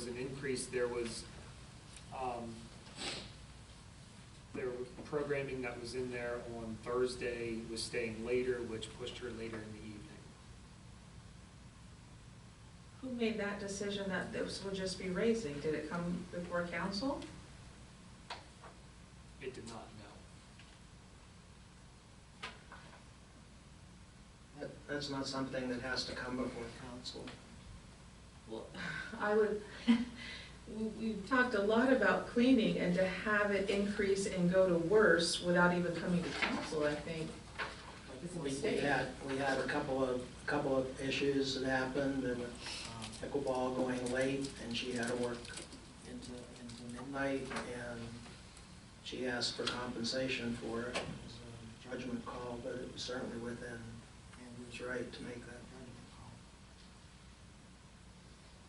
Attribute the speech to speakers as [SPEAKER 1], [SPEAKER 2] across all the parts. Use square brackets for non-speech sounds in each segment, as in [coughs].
[SPEAKER 1] was an increase, there was, um, there was programming that was in there on Thursday was staying later, which pushed her later in the evening.
[SPEAKER 2] Who made that decision that this would just be raising? Did it come before council?
[SPEAKER 1] It did not, no.
[SPEAKER 3] That- That's not something that has to come before council.
[SPEAKER 2] Well, [laughs] I would, we, we've talked a lot about cleaning and to have it increase and go to worse without even coming to council, I think. It's a
[SPEAKER 3] We- We
[SPEAKER 2] mistake.
[SPEAKER 3] had, we had a couple of, couple of issues that happened, and um, pickleball going late, and she had to work into, into midnight, and she asked for compensation for it. It was a judgment call, but it was certainly within Andrew's right to make that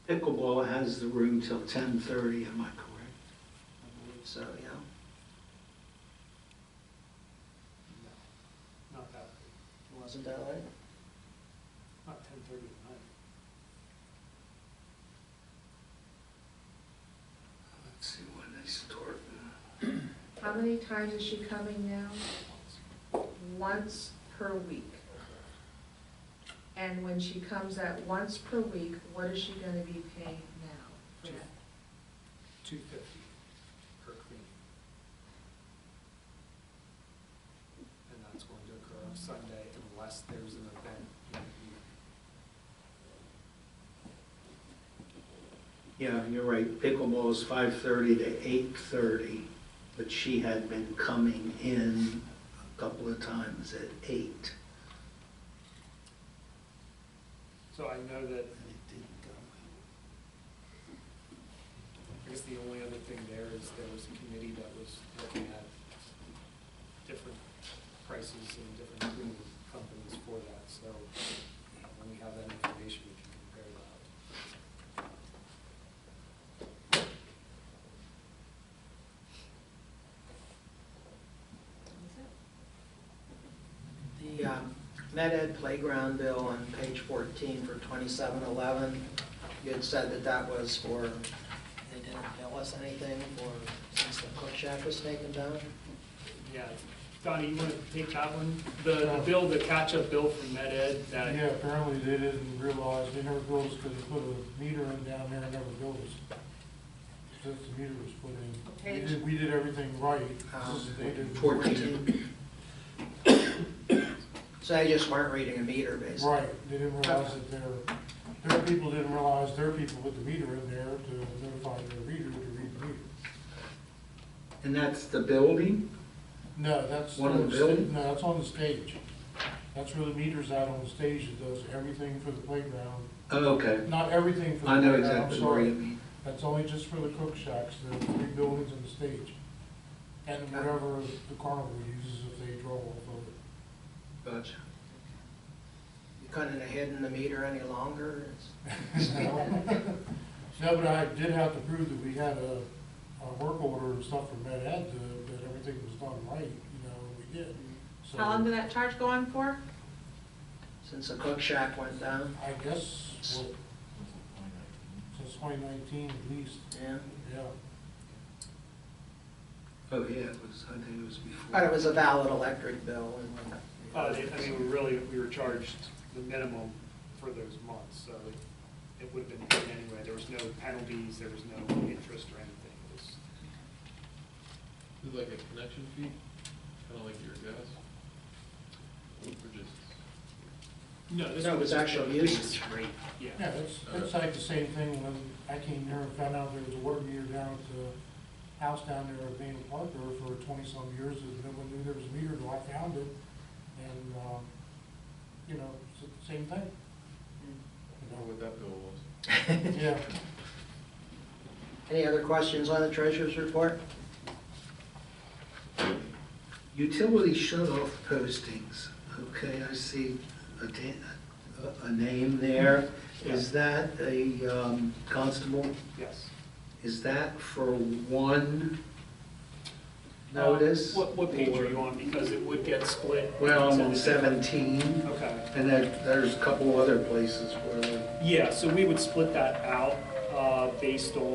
[SPEAKER 4] Pickleball has the room till ten thirty, am I correct?
[SPEAKER 3] judgment. So, yeah.
[SPEAKER 1] No, not that, late.
[SPEAKER 3] Wasn't that late?
[SPEAKER 1] not ten thirty at night.
[SPEAKER 4] Let's see when they start.
[SPEAKER 2] How many times is she coming now? Once per week. And when she comes at once per week, what is she gonna be paying now? for that?
[SPEAKER 1] Two fifty per clean. And that's going to occur on Sunday unless there's an event in the evening.
[SPEAKER 4] Yeah, you're right, pickleball is five thirty to eight thirty, but she had been coming in a couple of times at eight.
[SPEAKER 1] So I know that
[SPEAKER 4] And it didn't go.
[SPEAKER 1] I guess the only other thing there is there was a committee that was looking at different prices and different cleaning companies for that, so uh, when we have that information, we can compare that.
[SPEAKER 3] The um, Med Ed playground bill on page 14 for 2711, you had said that that was for, they didn't tell us anything for, since the cook shack was taken down?
[SPEAKER 1] Yeah, Donnie, you want to take that one? The the bill, the catch-up bill from Med Ed that
[SPEAKER 5] Yeah, apparently they didn't realize, they never billed us because they put a meter in down there and never billed us. Since the meter was put in.
[SPEAKER 2] Okay.
[SPEAKER 5] We did, we did everything right,
[SPEAKER 4] Uh,
[SPEAKER 3] Um,
[SPEAKER 5] it's just they didn't.
[SPEAKER 3] [coughs] So they just weren't reading a meter, basically?
[SPEAKER 5] Right, they didn't realize that their, their people didn't realize their people put the meter in there to notify their reader to read the meter.
[SPEAKER 4] And that's the building?
[SPEAKER 5] No, that's.
[SPEAKER 4] One of the
[SPEAKER 5] sta-
[SPEAKER 4] building?
[SPEAKER 5] No, that's on the stage. That's where the meter's out on the stage, it does everything for the playground,
[SPEAKER 4] Oh, okay.
[SPEAKER 5] not everything for the
[SPEAKER 4] I know
[SPEAKER 5] playground, I'm
[SPEAKER 4] exactly where
[SPEAKER 5] sorry.
[SPEAKER 4] you mean.
[SPEAKER 5] That's only just for the cook shacks, the three buildings and the stage. And whatever the carnival uses if they draw off of it.
[SPEAKER 4] Gotcha.
[SPEAKER 3] You couldn't have hidden the meter any longer? It's-
[SPEAKER 2] [laughs]
[SPEAKER 5] No, but I did have to prove that we had a, a work order and stuff from Med Ed to- that everything was done right, you know, and we did. So
[SPEAKER 2] How long did that charge go on for?
[SPEAKER 3] Since the cook shack went down?
[SPEAKER 5] I guess, well, since twenty nineteen at least,
[SPEAKER 3] Yeah.
[SPEAKER 5] yeah.
[SPEAKER 4] Oh, yeah, it was, I think it was before.
[SPEAKER 3] But it was a valid electric bill and whatnot.
[SPEAKER 1] Uh, they- I mean,
[SPEAKER 3] [laughs]
[SPEAKER 1] we really, we were charged the minimum for those months, so it- it would have been paid anyway. There was no penalties, there was no interest or anything. It was,
[SPEAKER 6] Is it like a connection fee, kind of like your gas? Or just,
[SPEAKER 1] no, this
[SPEAKER 3] No, it
[SPEAKER 1] was
[SPEAKER 3] was
[SPEAKER 1] just
[SPEAKER 3] actual
[SPEAKER 1] the base
[SPEAKER 3] usage.
[SPEAKER 1] rate,
[SPEAKER 5] Yeah,
[SPEAKER 1] yeah.
[SPEAKER 5] it's, it's like the same thing when I came here and found out there was a water meter down at the house down there at Van Parker for twenty-some years, and no one knew there was a meter until I found it. And, um, you know, it's the same thing.
[SPEAKER 6] I wonder what that bill was?
[SPEAKER 5] Yeah,
[SPEAKER 3] Any other questions on the treasurer's report?
[SPEAKER 4] Utility shut-off postings, okay, I see a, da- a- a name there. Is that a um, constable?
[SPEAKER 1] Yes.
[SPEAKER 4] Is that for one notice?
[SPEAKER 1] Uh, What, what page are you on? Because it would get split.
[SPEAKER 4] Well, I'm on 17,
[SPEAKER 1] Okay.
[SPEAKER 4] and there, there's a couple other places where,
[SPEAKER 1] Yeah, so we would split that out. uh, based on